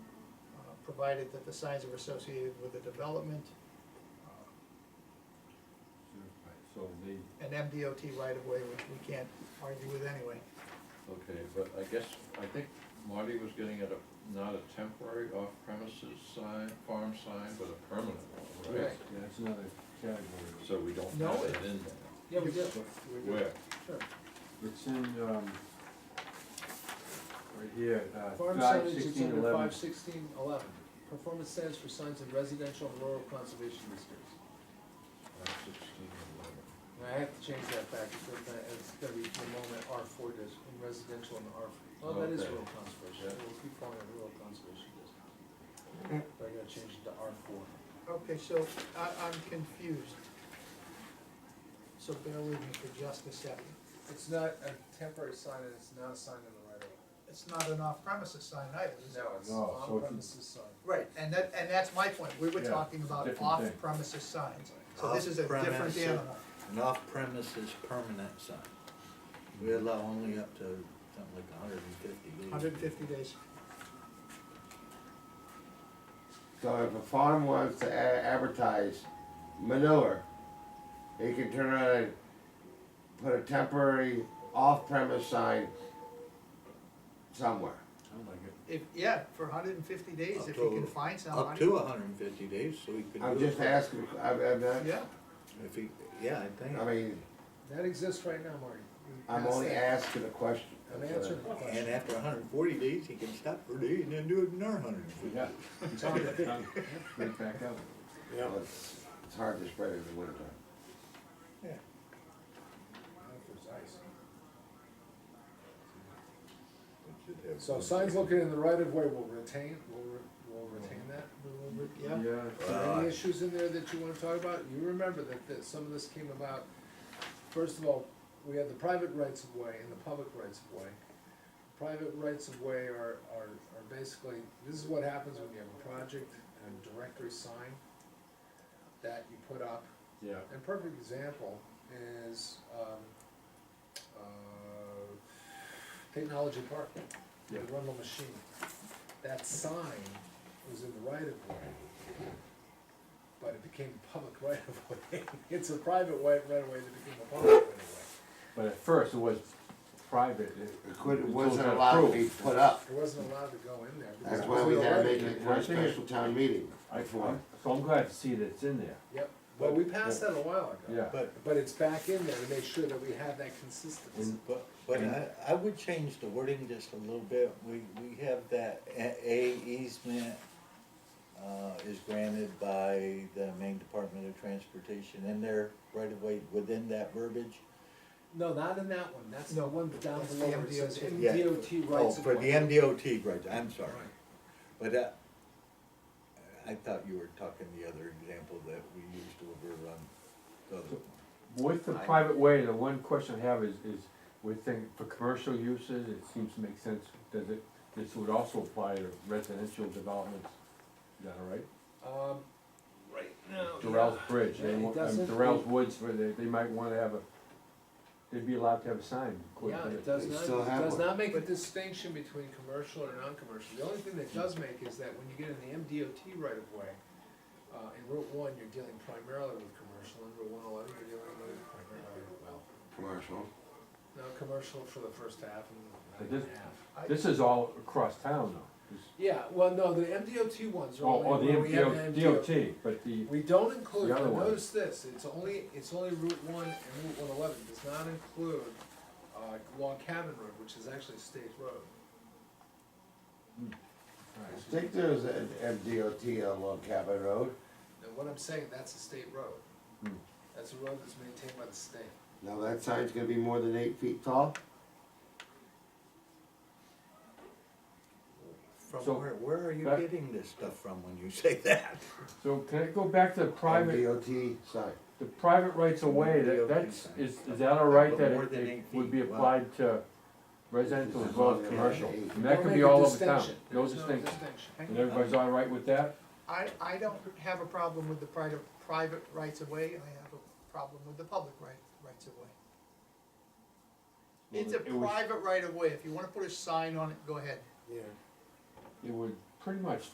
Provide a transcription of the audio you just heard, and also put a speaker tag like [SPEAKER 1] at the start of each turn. [SPEAKER 1] uh, provided that the signs are associated with the development, uh,
[SPEAKER 2] So the,
[SPEAKER 1] an MDOT right of way, which we can't argue with anyway.
[SPEAKER 2] okay, but I guess, I think Marty was getting at a, not a temporary off-premises sign, farm sign, but a permanent one, right?
[SPEAKER 3] Correct.
[SPEAKER 4] Yeah, that's another category.
[SPEAKER 2] So we don't
[SPEAKER 1] No,
[SPEAKER 2] have it
[SPEAKER 1] it-
[SPEAKER 2] in there.
[SPEAKER 3] Yeah, we did.
[SPEAKER 2] Where?
[SPEAKER 3] Sure.
[SPEAKER 4] It's in, um, right here, uh,
[SPEAKER 3] Farm
[SPEAKER 4] five
[SPEAKER 3] signage is
[SPEAKER 4] sixteen
[SPEAKER 3] under
[SPEAKER 4] eleven.
[SPEAKER 3] five sixteen eleven. Performance standards for signs in residential and rural conservation districts.
[SPEAKER 2] Five sixteen eleven.
[SPEAKER 3] And I have to change that back, because that- it's gonna be for the moment R four dis, in residential and R, oh, that is
[SPEAKER 2] Okay.
[SPEAKER 3] rural conservation,
[SPEAKER 2] Yeah.
[SPEAKER 3] we'll keep calling it rural conservation district. But I gotta change it to R four.
[SPEAKER 1] Okay, so I, I'm confused. So bear with me for just a second.
[SPEAKER 3] It's not a temporary sign, and it's not a sign in the right of way.
[SPEAKER 1] It's not an off-premises sign either, is it?
[SPEAKER 3] No, it's
[SPEAKER 4] No, so if you-
[SPEAKER 3] on premises sign.
[SPEAKER 1] Right, and that, and that's my point, we were
[SPEAKER 4] Yeah,
[SPEAKER 1] talking about
[SPEAKER 4] different thing.
[SPEAKER 1] off-premises signs, so this is a different
[SPEAKER 5] Off-premise, uh,
[SPEAKER 1] animal.
[SPEAKER 5] An off-premises permanent sign. We allow only up to something like hundred and fifty days.
[SPEAKER 1] Hundred and fifty days,
[SPEAKER 6] So if a farm wants to a- advertise manure, they can turn around and put a temporary off-premise sign somewhere.
[SPEAKER 4] Sounds like it.
[SPEAKER 1] if, yeah, for hundred and fifty days,
[SPEAKER 5] Up
[SPEAKER 1] if you
[SPEAKER 5] to-
[SPEAKER 1] can find
[SPEAKER 5] Up
[SPEAKER 1] somebody.
[SPEAKER 5] to hundred and fifty days, so we could do it.
[SPEAKER 6] I'm just asking, I'm, I'm not,
[SPEAKER 1] Yeah,
[SPEAKER 5] If he, yeah, I think.
[SPEAKER 6] I mean,
[SPEAKER 3] That exists right now, Marty. We
[SPEAKER 6] I'm
[SPEAKER 3] passed
[SPEAKER 6] only
[SPEAKER 3] that.
[SPEAKER 6] asking a question.
[SPEAKER 3] I'm answering the
[SPEAKER 5] And
[SPEAKER 3] question.
[SPEAKER 5] after hundred and forty days, he can stop for a day and then do it another hundred and fifty.
[SPEAKER 4] Yeah. Right back up.
[SPEAKER 6] Well, It's, it's hard to spread in the winter time.
[SPEAKER 3] So signs located in the right of way will retain, will, re- will retain that?
[SPEAKER 1] yeah,
[SPEAKER 4] Yeah.
[SPEAKER 5] Uh,
[SPEAKER 3] Any issues in there that you wanna talk about? You remember that, that some of this came about, first of all, we have the private rights of way and the public rights of way. Private rights of way are, are, are basically, this is what happens when you have a project and a directory sign that you put up.
[SPEAKER 2] Yeah.
[SPEAKER 3] A perfect example is, um, uh, Technology Park, the
[SPEAKER 4] Yeah.
[SPEAKER 3] Rundle Machine. That sign was in the right of way, but it became a public right of way. It's a private way, right of way that became a public right of
[SPEAKER 4] But at first it was private.
[SPEAKER 6] It could, it
[SPEAKER 4] until
[SPEAKER 6] wasn't
[SPEAKER 4] got
[SPEAKER 6] allowed to be
[SPEAKER 4] approved.
[SPEAKER 6] put up.
[SPEAKER 3] way. It wasn't allowed to go in there. because
[SPEAKER 6] That's
[SPEAKER 3] it
[SPEAKER 6] why
[SPEAKER 3] was
[SPEAKER 6] we
[SPEAKER 3] in the
[SPEAKER 6] had to
[SPEAKER 3] right
[SPEAKER 6] make
[SPEAKER 3] of way.
[SPEAKER 6] it for a special town meeting.
[SPEAKER 4] I, I'm- so I'm glad to see that it's in there,
[SPEAKER 3] Yep, well, we passed that a while ago.
[SPEAKER 4] yeah.
[SPEAKER 5] But,
[SPEAKER 3] But it's back in there to make sure that we have that consistency.
[SPEAKER 4] And-
[SPEAKER 5] but, but I, I would change the wording just a little bit. We, we have that A A easement, uh, is granted by the Maine Department of Transportation in there right away within that verbiage.
[SPEAKER 3] No, not in that one, that's the
[SPEAKER 1] No,
[SPEAKER 3] one down
[SPEAKER 1] that's the
[SPEAKER 3] below where it says
[SPEAKER 1] MDOT.
[SPEAKER 5] Yeah.
[SPEAKER 3] MDOT
[SPEAKER 5] Oh,
[SPEAKER 3] rights of way.
[SPEAKER 5] for the MDOT rights, I'm sorry. But, uh, I thought you were talking the other example that we used over on the other one.
[SPEAKER 4] With the private way, the one question I have is, is we think for commercial uses, it seems to make sense, does it, this would also apply to residential developments, is that all right?
[SPEAKER 3] Um, right now.
[SPEAKER 4] Durrell's Bridge,
[SPEAKER 3] Oh, Yeah,
[SPEAKER 4] they,
[SPEAKER 3] it
[SPEAKER 4] want- um,
[SPEAKER 3] doesn't-
[SPEAKER 4] Durrell's Woods, where they, they might wanna have a, they'd be allowed to have a sign. according
[SPEAKER 3] Yeah,
[SPEAKER 4] to
[SPEAKER 3] it
[SPEAKER 4] this.
[SPEAKER 3] does
[SPEAKER 6] They
[SPEAKER 3] not,
[SPEAKER 6] still
[SPEAKER 3] it
[SPEAKER 6] have
[SPEAKER 3] does
[SPEAKER 6] one.
[SPEAKER 3] not make a distinction between commercial or non-commercial. The only thing that does make is that when you get in the MDOT right of way, uh, in Route one, you're dealing primarily with commercial, in Route one eleven, you're dealing with primarily, well,
[SPEAKER 6] Commercial.
[SPEAKER 3] no, commercial for the first half and
[SPEAKER 4] But
[SPEAKER 3] the
[SPEAKER 4] this-
[SPEAKER 3] half.
[SPEAKER 4] This is all across town though, This-
[SPEAKER 3] Yeah, well, no, the MDOT ones are
[SPEAKER 4] oh, oh,
[SPEAKER 3] only
[SPEAKER 4] the
[SPEAKER 3] where we have
[SPEAKER 4] MDO
[SPEAKER 3] an
[SPEAKER 4] DOT, but the,
[SPEAKER 3] We don't include,
[SPEAKER 4] The other
[SPEAKER 3] but
[SPEAKER 4] one.
[SPEAKER 3] notice this, it's only, it's only Route one and Route one eleven, does not include, uh, Log Cabin Road, which is actually a state road.
[SPEAKER 6] I think there's an MDOT on Long Cabin Road.
[SPEAKER 3] Now, what I'm saying, that's a state road.
[SPEAKER 4] Hmm.
[SPEAKER 3] That's a road that's maintained by the state.
[SPEAKER 6] Now that sign's gonna be more than eight feet tall?
[SPEAKER 5] From
[SPEAKER 4] So-
[SPEAKER 5] where, where are you
[SPEAKER 4] Back-
[SPEAKER 5] getting this stuff from when you say that?
[SPEAKER 4] so can I go back to the private,
[SPEAKER 6] MDOT sign.
[SPEAKER 4] the private rights of way, that,
[SPEAKER 5] DOT
[SPEAKER 4] that's,
[SPEAKER 5] sign.
[SPEAKER 4] is, is that all right
[SPEAKER 5] But
[SPEAKER 4] that
[SPEAKER 5] more
[SPEAKER 4] it-
[SPEAKER 5] than
[SPEAKER 4] it
[SPEAKER 5] eight
[SPEAKER 4] would be
[SPEAKER 5] feet, wow.
[SPEAKER 4] applied to residential as well as commercial? And
[SPEAKER 3] Don't
[SPEAKER 4] that could
[SPEAKER 3] make
[SPEAKER 4] be
[SPEAKER 3] a
[SPEAKER 4] all over town,
[SPEAKER 3] distinction.
[SPEAKER 4] no
[SPEAKER 3] There's
[SPEAKER 4] distinction,
[SPEAKER 1] Hang
[SPEAKER 4] and everybody's all right with that?
[SPEAKER 1] I, I don't have a problem with the private, private rights of way, I have a problem with the public right, rights of way. It's a
[SPEAKER 4] Well, it was-
[SPEAKER 1] private right of way, if you wanna put a sign on it, go ahead.
[SPEAKER 4] It would pretty much